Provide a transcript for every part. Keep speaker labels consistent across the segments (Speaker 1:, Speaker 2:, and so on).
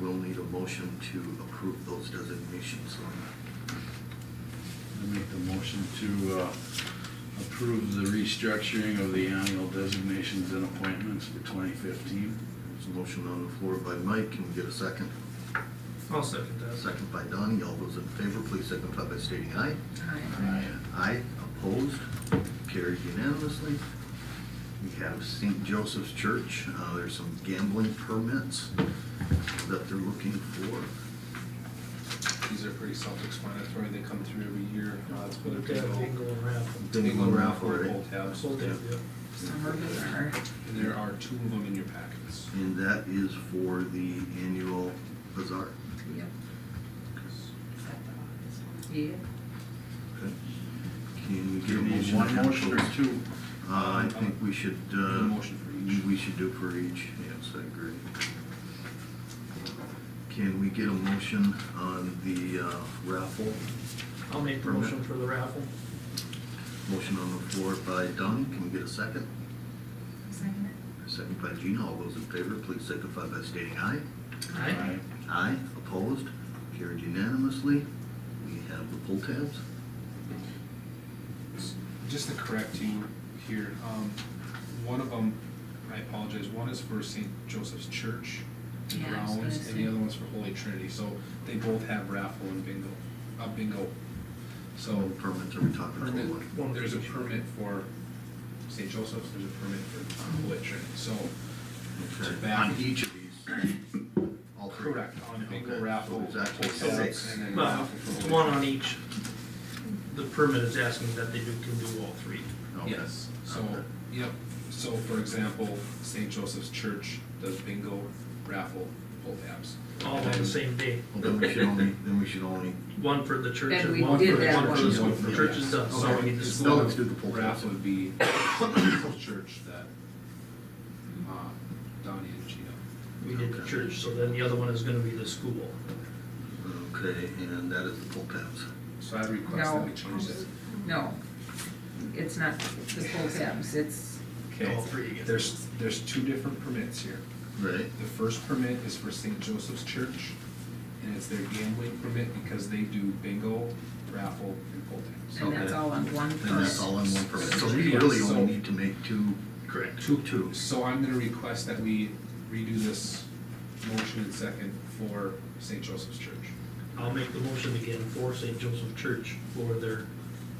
Speaker 1: need a motion to approve those designations.
Speaker 2: I make the motion to uh, approve the restructuring of the annual designations and appointments for 2015.
Speaker 1: There's a motion on the floor by Mike, can we get a second?
Speaker 3: I'll second that.
Speaker 1: Second by Donnie, all those in favor, please signify by stating aye.
Speaker 2: Aye.
Speaker 1: Aye, opposed, carried unanimously. We have St. Joseph's Church, uh, there's some gambling permits that they're looking for.
Speaker 4: These are pretty self-explanatory, they come through every year. Uh, It's been a
Speaker 3: Look
Speaker 4: big
Speaker 3: at
Speaker 4: old.
Speaker 3: Bingo and raffle.
Speaker 1: Bingo and raffle, right?
Speaker 4: Pull tabs.
Speaker 3: Sold that, yeah.
Speaker 5: Summer Bazaar.
Speaker 4: And there are two of them in your packets.
Speaker 1: And that is for the annual bazaar.
Speaker 5: Yep. Yeah.
Speaker 1: Okay. Can we get
Speaker 2: Do
Speaker 1: a
Speaker 2: you need
Speaker 1: motion?
Speaker 2: one
Speaker 1: to
Speaker 2: motion or
Speaker 1: have those?
Speaker 2: two?
Speaker 1: Uh, I think we should, uh.
Speaker 4: A motion for each.
Speaker 1: We should do for each, yes, I agree. Can we get a motion on the uh, raffle?
Speaker 3: I'll make the motion for the raffle.
Speaker 1: Motion on the floor by Donnie, can we get a second?
Speaker 5: Second
Speaker 1: Second by Gina, all those in favor, please signify by stating aye.
Speaker 3: Aye.
Speaker 1: Aye, opposed, carried unanimously. We have the pull tabs.
Speaker 4: Just to correct you here, um, one of them, I apologize, one is for St. Joseph's Church
Speaker 5: Yeah, I was
Speaker 4: grounds,
Speaker 5: gonna
Speaker 4: and the
Speaker 5: say.
Speaker 4: other one's for Holy Trinity, so they both have raffle and bingo, uh, bingo. So,
Speaker 1: Permits, are we talking for
Speaker 4: permit,
Speaker 1: one?
Speaker 3: One
Speaker 4: there's a
Speaker 3: each.
Speaker 4: permit for St. Joseph's, there's a permit for Holy Trinity, so. to
Speaker 1: Okay,
Speaker 4: back-
Speaker 1: On each of these? All three?
Speaker 4: Correct, on bingo,
Speaker 1: Okay,
Speaker 4: raffle.
Speaker 1: So there's actually
Speaker 4: pull tabs,
Speaker 1: six.
Speaker 4: and then
Speaker 3: Well,
Speaker 4: raffle for Holy
Speaker 3: one
Speaker 4: Trinity.
Speaker 3: on each. The permit is asking that they do, can do all three.
Speaker 1: Okay,
Speaker 4: Yes, so,
Speaker 1: okay.
Speaker 4: yep, so for example, St. Joseph's Church does bingo, raffle, pull tabs.
Speaker 3: All on the same day.
Speaker 1: Well, then we should only, then we should only,
Speaker 3: One for the church
Speaker 5: Then
Speaker 3: and
Speaker 5: we
Speaker 3: one for
Speaker 5: did
Speaker 3: the,
Speaker 5: that
Speaker 3: one for the
Speaker 5: one.
Speaker 3: school. The church is done, so
Speaker 4: So
Speaker 3: we need the
Speaker 4: it's
Speaker 3: school.
Speaker 1: No, let's do the pull tabs.
Speaker 4: raffle would be the church that, uh, Donnie and Gina.
Speaker 3: We did the church, so then the other one is gonna be the school.
Speaker 1: okay, and that is the pull tabs.
Speaker 4: So I
Speaker 5: that.
Speaker 4: request that
Speaker 5: No.
Speaker 4: we change that.
Speaker 5: No. It's not the full tabs, it's,
Speaker 4: Okay,
Speaker 3: All three again.
Speaker 4: there's, there's two different permits here.
Speaker 1: Right.
Speaker 4: The first permit is for St. Joseph's Church, and it's their gambling permit because they do bingo, raffle, and pull tabs.
Speaker 5: and that's
Speaker 1: Okay.
Speaker 5: all on one
Speaker 1: And that's all
Speaker 5: permit.
Speaker 1: in one permit, so we really only need to make two.
Speaker 3: Correct.
Speaker 4: Two, two. So I'm gonna request that we redo this motion and second for St. Joseph's Church.
Speaker 3: I'll make the motion again for St. Joseph Church for their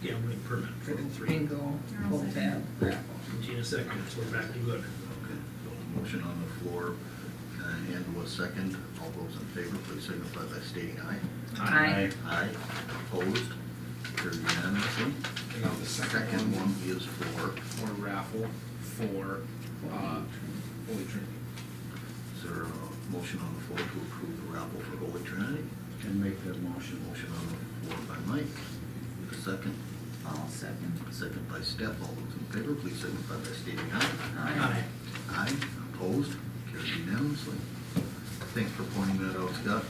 Speaker 3: gambling permit for
Speaker 5: For
Speaker 3: all
Speaker 5: the
Speaker 3: three.
Speaker 5: bingo, full tab, raffle.
Speaker 3: Gina seconds, we're back to good.
Speaker 1: Okay. Motion on the floor, uh, and was second, all those in favor, please signify by stating aye.
Speaker 5: Aye.
Speaker 1: Aye, opposed, carried unanimously.
Speaker 4: And now the
Speaker 1: Second
Speaker 4: second one
Speaker 1: one is for,
Speaker 4: for raffle for, uh, Holy Trinity.
Speaker 1: is there a motion on the floor to approve the raffle for Holy Trinity?
Speaker 2: Can make that motion.
Speaker 1: Motion on the floor by Mike, a second,
Speaker 5: All second.
Speaker 1: a second by Steph, all those in favor, please signify by stating aye.
Speaker 3: Aye.
Speaker 1: Aye, opposed, carried unanimously. Thanks for pointing that out, Scott.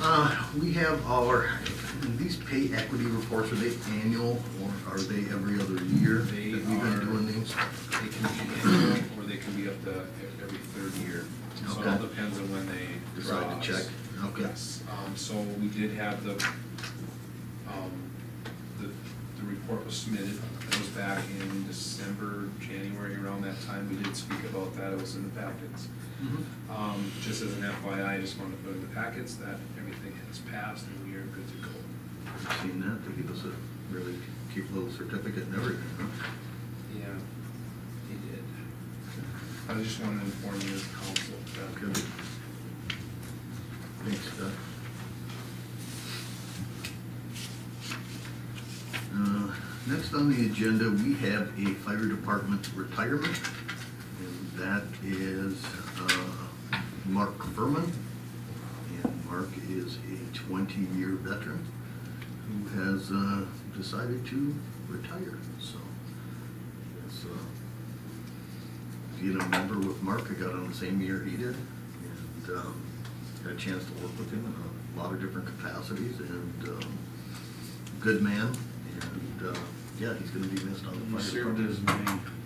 Speaker 1: Uh, we have our, these pay equity reports, are they annual or are they every other year?
Speaker 4: They
Speaker 1: Have you been
Speaker 4: are-
Speaker 1: doing these?
Speaker 4: They can be annual, or they can be up to ev- every third year. So it all
Speaker 1: Okay.
Speaker 4: depends on when they.
Speaker 1: Decide to
Speaker 4: draw us.
Speaker 1: check, okay.
Speaker 4: Yes, um, so we did have the, um, the, the report was submitted, it was back in December, January, around that time, we did speak about that, it was in the packets.
Speaker 1: Mm-hmm.
Speaker 4: Um, just as an FYI, I just wanted to put in the packets that everything has passed and we are good to go.
Speaker 1: I've Seen that, they give us a really cute little certificate and everything, huh?
Speaker 4: Yeah, he did. I just wanted to inform you as council that.
Speaker 1: Okay. Thanks, Doug. Uh, Next on the agenda, we have a fire department retirement. And that is uh, Mark Furman. And Mark is a 20-year veteran who has uh, decided to retire, so. it's, uh, being a member with Mark, I got on the same year he did, and um, had a chance to work with him in a lot of different capacities, and um, good man, and uh, yeah, he's gonna be missed on the
Speaker 2: He
Speaker 1: fire
Speaker 2: served
Speaker 1: department.
Speaker 2: his main